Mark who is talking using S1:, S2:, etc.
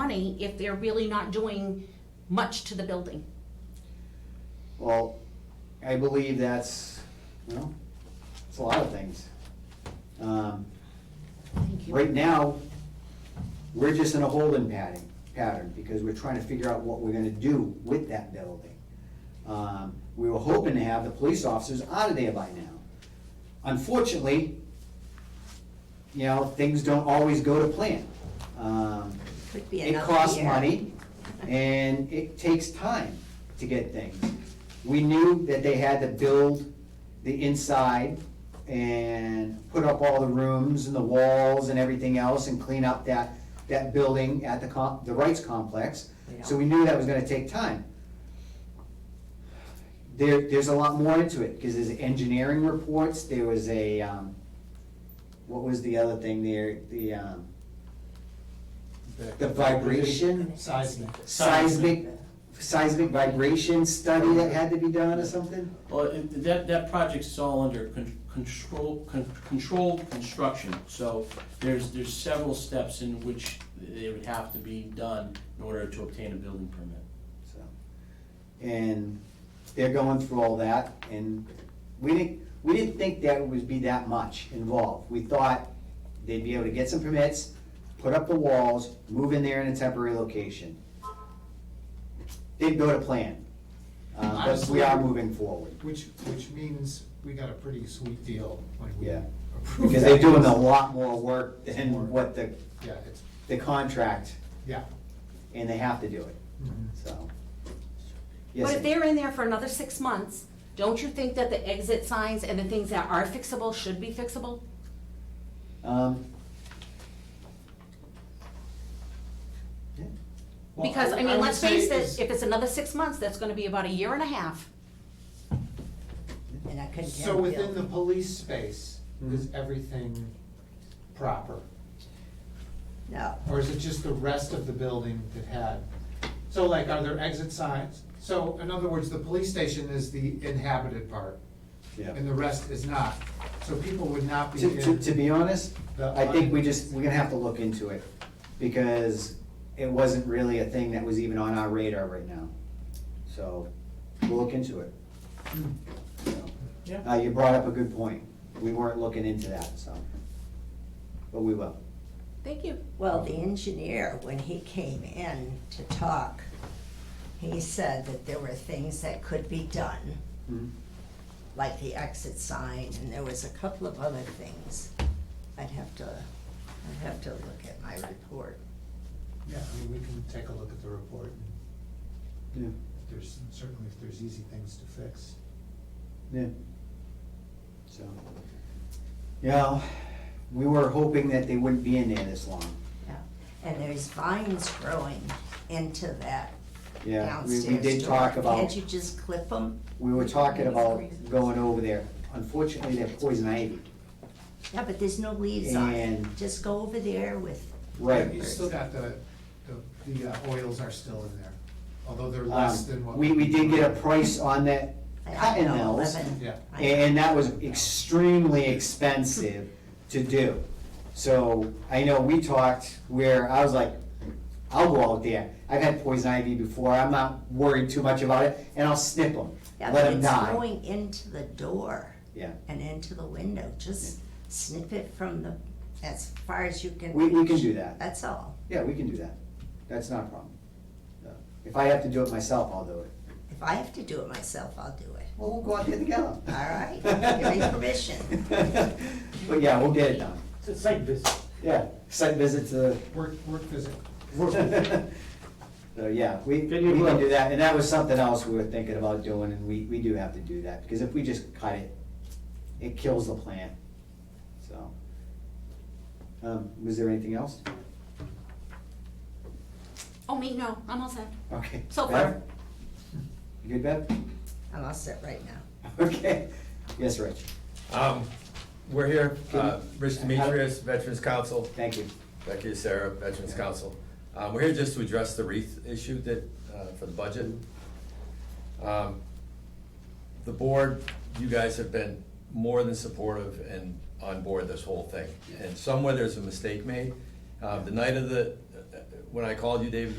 S1: money if they're really not doing much to the building.
S2: Well, I believe that's, well, it's a lot of things. Um,
S1: Thank you.
S2: Right now, we're just in a holding pattern, pattern, because we're trying to figure out what we're gonna do with that building. Um, We were hoping to have the police officers out of there by now. Unfortunately, you know, things don't always go to plan. Um,
S3: Could be
S2: It
S3: another
S2: costs
S3: year.
S2: money, and it takes time to get things. We knew that they had to build the inside and put up all the rooms and the walls and everything else and clean up that, that building at the com, the Rights Complex. So we knew that was gonna take time. There, there's a lot more into it, because there's engineering reports, there was a, um, what was the other thing there, the, um, the vibration,
S4: Seismic.
S2: seismic, seismic vibration study that had to be done or something?
S4: Well, it- that, that project's all under con- control, con- controlled construction, so there's, there's several steps in which they would have to be done in order to obtain a building permit.
S2: So, And they're going through all that, and we didn't, we didn't think that would be that much involved. We thought they'd be able to get some permits, put up the walls, move in there in a temporary location. They'd build a plan, uh, but we are moving forward,
S5: Which, which means we got a pretty sweet deal when we
S2: Yeah.
S5: approved.
S2: because they're
S5: that.
S2: doing a lot more work than what the,
S5: Yeah, it's,
S2: the contract,
S5: yeah.
S2: and they have to do it, so. Yes,
S1: But if they're in there for another six months, don't you think that the exit signs and the things that are fixable should be fixable?
S2: um, yeah.
S4: Well,
S1: Because, I
S4: would-
S1: mean,
S4: would
S1: let's
S4: say
S1: face
S4: is-
S1: it, if it's another six months, that's gonna be about a year and a half.
S3: And I couldn't tell.
S5: So within the police space,
S2: Mm-hmm.
S5: is everything proper?
S3: No,
S5: Or is it just the rest of the building that had? So like, are there exit signs? So in other words, the police station is the inhabited part
S2: Yeah.
S5: and the rest is not. So people would not be
S2: To, to,
S5: in.
S2: to be honest,
S5: The-
S2: I think we just, we're gonna have to look into it, because it wasn't really a thing that was even on our radar right now. So, we'll look into it. So,
S4: Yeah.
S2: Uh, you brought up a good point, we weren't looking into that, so, but we will.
S1: Thank you.
S3: well, the engineer, when he came in to talk, he said that there were things that could be done,
S2: Hmm.
S3: like the exit sign, and there was a couple of other things. I'd have to, I'd have to look at my report.
S5: Yeah, I mean, we can take a look at the report. and
S2: Yeah,
S5: if There's, certainly if there's easy things to fix.
S2: yeah. So, you know, we were hoping that they wouldn't be in there this long,
S3: Yeah, And there's vines growing into that
S2: yeah, we,
S3: downstairs
S2: we did
S3: door.
S2: talk about.
S3: Can't you just clip them?
S2: We were talking about going over there. Unfortunately, they're poison ivy.
S3: Yeah, but there's no leaves on it.
S2: And-
S3: Just go over there with
S2: Right.
S5: You still got the, the, the uh, oils are still in there, although they're less than
S2: Um,
S5: what.
S2: We, we did get a price on that cottonelles, and
S3: Yeah.
S5: Yeah.
S2: and that was extremely expensive to do. So I know we talked where I was like, I'll go out there. I've had poison ivy before. I'm not worried too much about it, and I'll snip them,
S3: Yeah,
S2: let
S3: but
S2: them
S3: it's
S2: die.
S3: going into the door
S2: Yeah.
S3: and into the window, just snip it from the, as far as you can.
S2: We, we can
S3: reach.
S2: do that.
S3: That's all.
S2: Yeah, we can do that. That's not a problem. No. If I have to do it myself, I'll do it.
S3: If I have to do it myself, I'll do it.
S2: Well, we'll go out there together.
S3: All right, give me permission.
S2: But yeah, we'll get it done.
S6: It's a site visit.
S2: Yeah, site visit to,
S5: Work, work visit.
S2: so yeah, we, we
S6: Then you
S2: can
S6: will.
S2: do that. And that was something else we were thinking about doing and we, we do have to do that because if we just cut it, it kills the plant, so. Um, was there anything else?
S1: Oh, me, no, I'm all set.
S2: Okay.
S1: So
S2: Bev?
S1: far.
S2: You good, Bev?
S3: I'm all set right now.
S2: Okay. Yes, Rich,
S7: Um, we're here, uh,
S2: Can-
S7: Rich Demetrius, Veterans Council,
S2: thank you.
S7: Becky and Sarah, Veterans Council. Uh, we're here just to address the wreath issue that, uh, for the budget. Um, The board, you guys have been more than supportive and Um, on board this whole thing. And somewhere there's a mistake made. Uh, the night of the, when I called you, David,